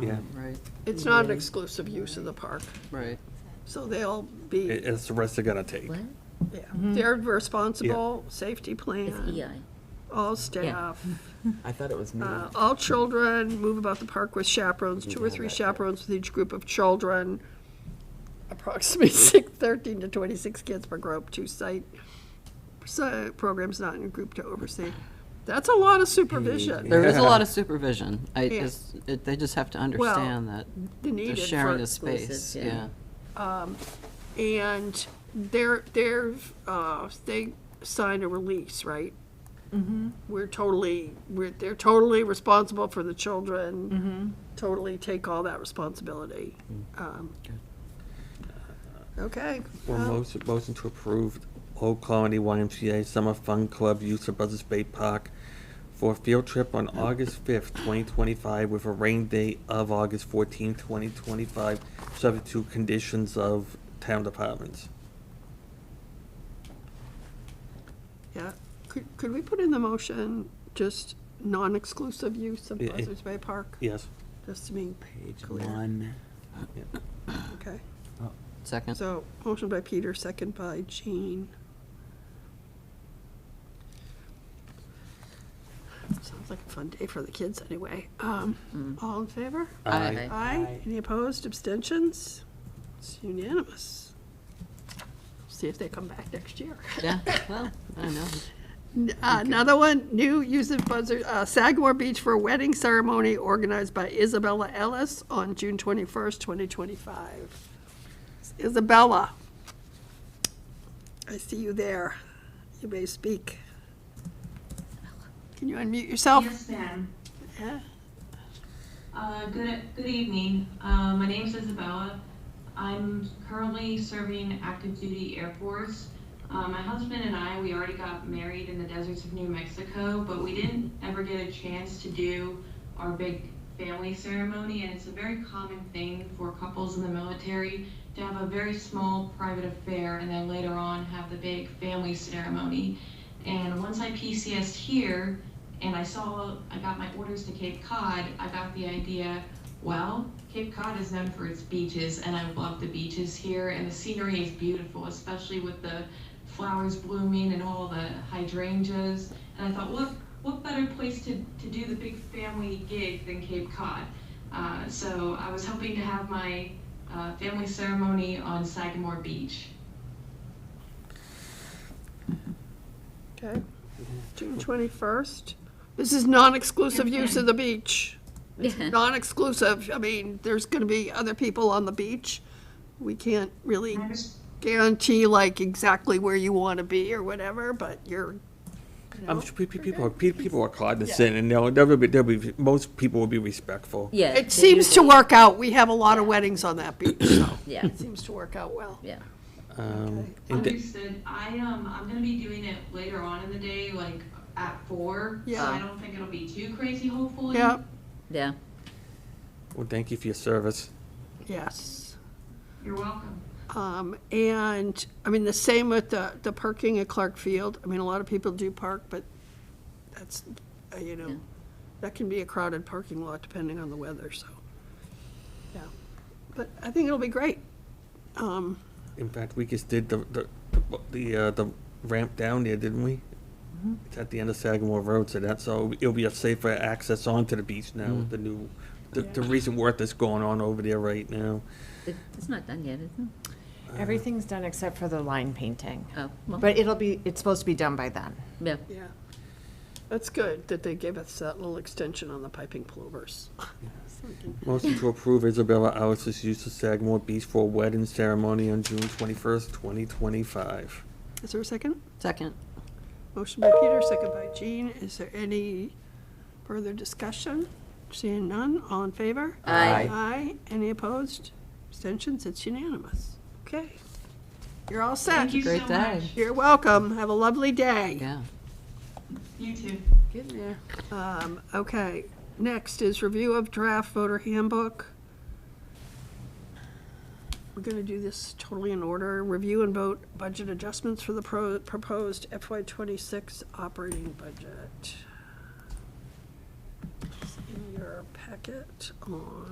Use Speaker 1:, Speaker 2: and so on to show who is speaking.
Speaker 1: Yeah.
Speaker 2: Right,
Speaker 3: It's not an exclusive use of the park,
Speaker 2: right.
Speaker 3: so they'll be,
Speaker 1: It- It's the risk they're gonna take.
Speaker 4: What?
Speaker 3: yeah, they're responsible, safety
Speaker 4: It's
Speaker 3: plan,
Speaker 4: EI.
Speaker 3: all staff,
Speaker 5: I thought it was me.
Speaker 3: uh, all children, move about the park with chaperones, two or three chaperones with each group of children, approximately six, thirteen to twenty-six kids per group, two site, si- programs not in group to oversee. That's a lot of supervision,
Speaker 2: There is a
Speaker 1: Yeah.
Speaker 2: lot of supervision. I
Speaker 3: Yeah.
Speaker 2: just, it- they just have to understand that
Speaker 3: they
Speaker 2: they're
Speaker 3: needed for.
Speaker 2: sharing a
Speaker 4: Exclusives,
Speaker 2: space,
Speaker 4: yeah.
Speaker 2: yeah.
Speaker 3: And they're, they're, uh, they signed a release, right? We're totally, we're, they're totally responsible for the children. Totally take all that responsibility. Um, Okay.
Speaker 1: Well,
Speaker 3: Um,
Speaker 1: motion, motion to approve Old Colony YMCA Summer Fun Club use of Buzzards Bay Park for a field trip on August fifth, twenty twenty-five, with a rain date of August fourteenth, twenty twenty-five, subject to conditions of town departments.
Speaker 3: Yeah, could, could we put in the motion just non-exclusive use of
Speaker 1: Yeah, it-
Speaker 3: Buzzards Bay Park?
Speaker 1: Yes.
Speaker 3: Just to be
Speaker 5: Page
Speaker 3: clear.
Speaker 5: one.
Speaker 3: Okay,
Speaker 2: Second,
Speaker 3: so motion by Peter, second by Jean. Sounds like a fun day for the kids anyway. Um, all in favor?
Speaker 2: Aye.
Speaker 3: Aye.
Speaker 5: Aye.
Speaker 3: Any opposed, abstentions? It's unanimous. See if they come back next year.
Speaker 2: yeah, well, I know.
Speaker 3: N- uh, Another one, new use of buzzer, uh, Sagamore Beach for a wedding ceremony organized by Isabella Ellis on June twenty-first, twenty twenty-five. Isabella, I see you there. You may speak. Can you unmute yourself?
Speaker 6: Yes, ma'am.
Speaker 3: Yeah.
Speaker 6: Uh, Good, good evening. Uh, My name is Isabella. I'm currently serving active duty Air Force. Uh, My husband and I, we already got married in the deserts of New Mexico, but we didn't ever get a chance to do our big family ceremony, and it's a very common thing for couples in the military to have a very small private affair and then later on have the big family ceremony. And once I PCSed here, and I saw I got my orders to Cape Cod, I got the idea, well, Cape Cod is known for its beaches and I love the beaches here and the scenery is beautiful, especially with the flowers blooming and all the hydrangeas. And I thought, what what better place to, to do the big family gig than Cape Cod? Uh, so I was hoping to have my uh, family ceremony on Sagamore Beach.
Speaker 3: Okay, June twenty-first. This is non-exclusive use of the beach. It's
Speaker 4: Yeah.
Speaker 3: Non-exclusive, I mean, there's gonna be other people on the beach. We can't really guarantee like exactly where you wanna be or whatever, but you're, you
Speaker 1: I'm
Speaker 3: know.
Speaker 1: sure pe- pe- people, are- pe- people are cognizant and they'll, they'll be, they'll be, most people will be respectful.
Speaker 4: Yeah. they
Speaker 3: It seems to
Speaker 4: usually-
Speaker 3: work out. We have a lot of weddings on that beach, so
Speaker 4: Yeah,
Speaker 3: it seems to work out well.
Speaker 4: yeah.
Speaker 1: Um, and th-
Speaker 6: Understood. I um I'm gonna be doing it later on in the day, like at four.
Speaker 3: Yeah.
Speaker 6: So I don't think it'll be too crazy, hopefully.
Speaker 3: Yeah,
Speaker 4: Yeah.
Speaker 1: Well, thank you for your service.
Speaker 3: yes.
Speaker 6: You're welcome.
Speaker 3: Um, and, I mean, the same with the, the parking at Clark Field. I mean, a lot of people do park, but that's, uh, you know, that can be a crowded parking lot depending on the weather, so. Yeah, but I think it'll be great. Um,
Speaker 1: In fact, we just did the, the, the- the, uh, the ramp down there, didn't we? It's at the end of Sagamore Road, so that's, so it'll be a safer access onto the beach now with the new, the, the recent work that's going on over there right now.
Speaker 4: It- It's not done yet, is it?
Speaker 7: Everything's done except for the line painting.
Speaker 4: Oh, well,
Speaker 7: But it'll be, it's supposed to be done by then.
Speaker 4: yeah.
Speaker 3: yeah, that's good that they gave us that little extension on the piping plovers.
Speaker 1: Motion to approve Isabella Alice's use of Sagamore Beach for a wedding ceremony on June twenty-first, twenty twenty-five.
Speaker 3: Is there a second?
Speaker 2: Second,
Speaker 3: Motion by Peter, second by Jean. Is there any further discussion? Seeing none, all in favor?
Speaker 4: Aye.
Speaker 3: Aye. Any opposed? Abstentions? It's unanimous. Okay. You're all set.
Speaker 6: Thank you
Speaker 2: great
Speaker 6: so
Speaker 2: day.
Speaker 6: much.
Speaker 3: You're welcome. Have a lovely day.
Speaker 2: yeah.
Speaker 6: You too.
Speaker 3: Um, okay, next is review of draft voter handbook. We're gonna do this totally in order. Review and vote budget adjustments for the pro- proposed FY twenty-six operating budget. It's In your packet on